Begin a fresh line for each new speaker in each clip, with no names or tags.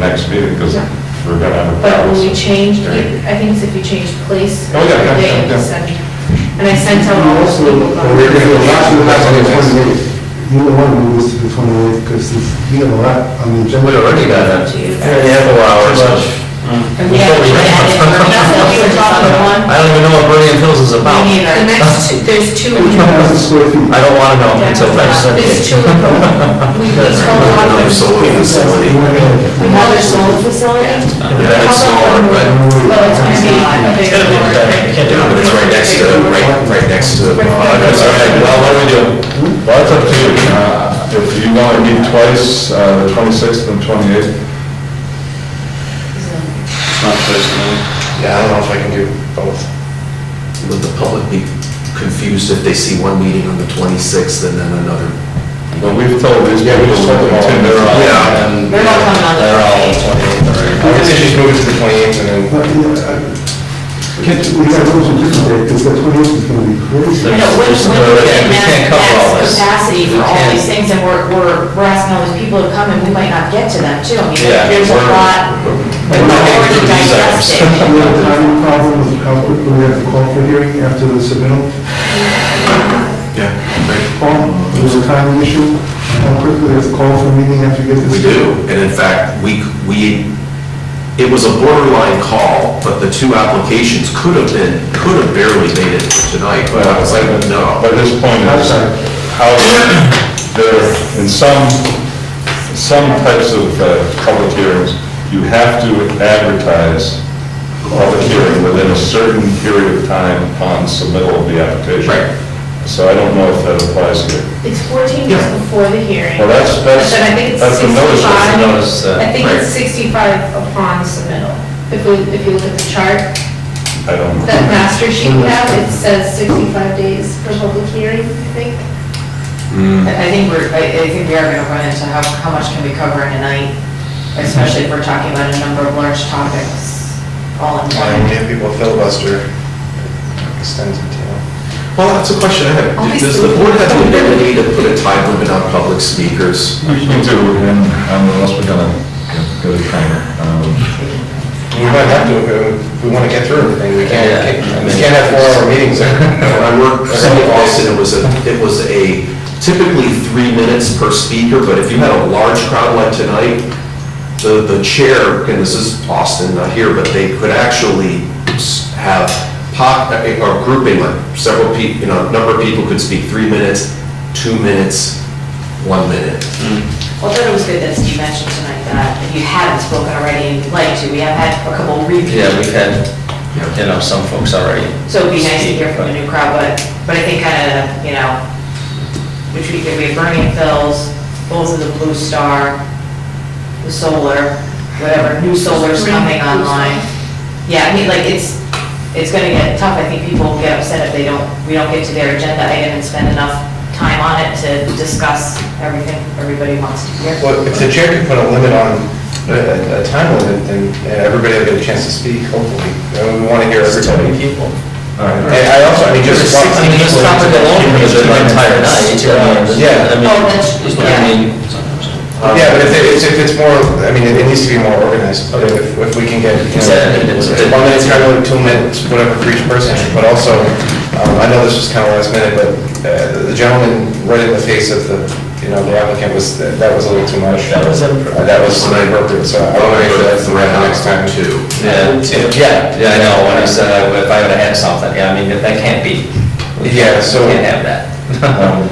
next meeting, because
Yeah.
we're gonna have a
But
problem.
when we change,
Right.
I think it's if you change place
Oh,
or
yeah, yeah,
day,
yeah.
send- and I sent
uh,
out all the
Also,
people.
we're going to last the last one, You don't want to move this to the 28th because we got a lot on the agenda.
We already got a, and a half hours.
We have to add it. That's what we were talking about.
I don't even know what Vernon Hills is about.
Me neither.
I
The next, two- there's two. in here.
2,000 square feet.
don't wanna know until February
There's two. in here. We we
That's
sold one.
another solar facility.
Another solar facility?
That is solar, but
Well, it's gonna be a
it's
big
gonna be,
one.
can't do it, but it's right next to, right, right next to.
That's all right, well, what do we do? Well, it's up to you. Uh, If you want to meet twice, uh, the 26th and 28th,
Yeah, I don't know if I can do both. Would the public be confused if they see one meeting on the twenty-sixth and then another?
but we've told these people, we've told them, Tim, they're all.
Yeah.
They're not coming on the
They're all
28th.
twenty-eighth. I guess they just move it to the twenty-eighth and then.
But, yeah, I- We got those on different day because the 28th is going to be crazy.
You know, when,
There's
when
no-
we
we
get
can't
max,
cover all
max
this.
capacity
We
for all
can't.
these things, and we're, we're, we're asking all these people to come, and we might not get to them too. I mean,
Yeah,
there's a
we're-
lot,
we're
we're
not getting
already
through these items.
digested.
We have a timing problem with how quickly we have to call for hearing after the submittal.
Yeah, right.
Paul, there's a timing issue. How quickly we have to call for meeting after you get this.
We do, and in fact, we, we, it was a borderline call, but the two applications could have been, could have barely made it tonight, but I was like, no.
But his point is, how, there, in some, some types of uh, public hearings, you have to advertise a public hearing within a certain period of time upon submittal of the application.
Right.
So I don't know if that applies here.
It's 14 days
Yeah.
before the hearing.
Well, that's- that's-
But then I think it's
that's the notice, that's the
65
notice, uh,
I think it's
right.
65 upon submittal. If we, if you look at the chart,
I don't know.
that master sheet we have, it says 65 days for public hearing, I think.
Hmm.
I I think we're, I, I think we are gonna run into how, how much can we cover in a night, especially if we're talking about a number of large topics all in one.
And give people filibuster extends it to.
Well, that's a question I have. Does the board have the ability to put a time limit on public speakers?
We can do, and um, unless we're gonna go to China. um,
We might have to, if we want to get through everything, we can't, we can't have four-hour meetings.
When I worked for City of Boston, it was a, it was a typically three minutes per speaker, but if you had a large crowd like tonight, the, the chair, and this is Boston, not here, but they could actually s- have pop, or grouping, like several people, you know, a number of people could speak three minutes, two minutes, one minute.
Well, I thought it was good that Steve mentioned tonight that if you haven't spoken already and you'd like to, we have had a couple repeat.
Yeah, we've had, you know, some folks already.
So it'd be nice to hear
speak,
from
but-
the new crowd, but, but I think kind of, you know, which we could be Burning Phil's, both of the Blue Star, the solar, whatever, new solar's coming online. Yeah, I mean, like, it's, it's gonna get tough, I think people will get upset if they don't, we don't get to their agenda item and spend enough time on it to discuss everything everybody wants to hear.
Well, if the chair could put a limit on, a a time limit, then uh, everybody will get a chance to speak, hopefully. Uh, We want to hear everybody.
people.
All right.
And I also, I mean, just.
I mean, just drop it alone for the entire night. I
Yeah.
mean,
Oh, that's-
is what I
yeah.
mean.
Yeah, but if it- it's, if it's more, I mean, it it needs to be more organized, if, if we can get, you know,
Exactly.
one minute's kind of like two minutes, whatever for each person, but also, um, I know this was kind of last minute, but uh, the gentleman right in the face of the, you know, the applicant was, that that was a little too much.
That was inappropriate.
Uh, That was inappropriate, so I want to make sure that's the right next time.
Two.
Yeah, yeah, yeah, I know, when I said I would- if I would've had something, yeah, I mean, that can't be.
Yeah, so-
Can't have that.
Um,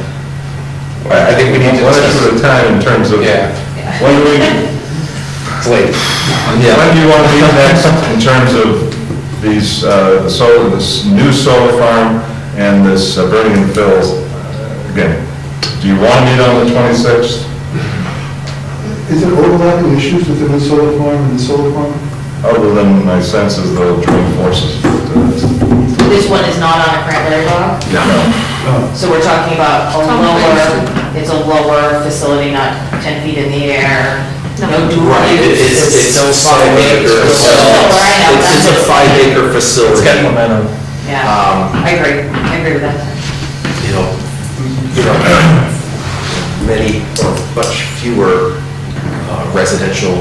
I I think we need to,
One issue at a
it's
time in terms of,
Yeah.
when do we,
late.
When do you want to meet next in terms of these, uh, the solar, this new solar farm and this uh, Burning and Phil's? Again, do you want to meet on the 26th?
Is there overlapping issues with the new solar farm and the solar farm?
Other than my sense is they'll join forces.
This one is not on a cranberry log?
No.
Uh,
No.
So we're talking about a lower, it's a lower facility, not 10 feet in the air, no dual
Right, it-
use.
it's, it's a five acre,
It's
so,
right now,
it's a
that's-
five acre facility.
momentum.
Yeah,
Um,
I agree, I agree with that.
you know, you know, many, or much fewer uh, residential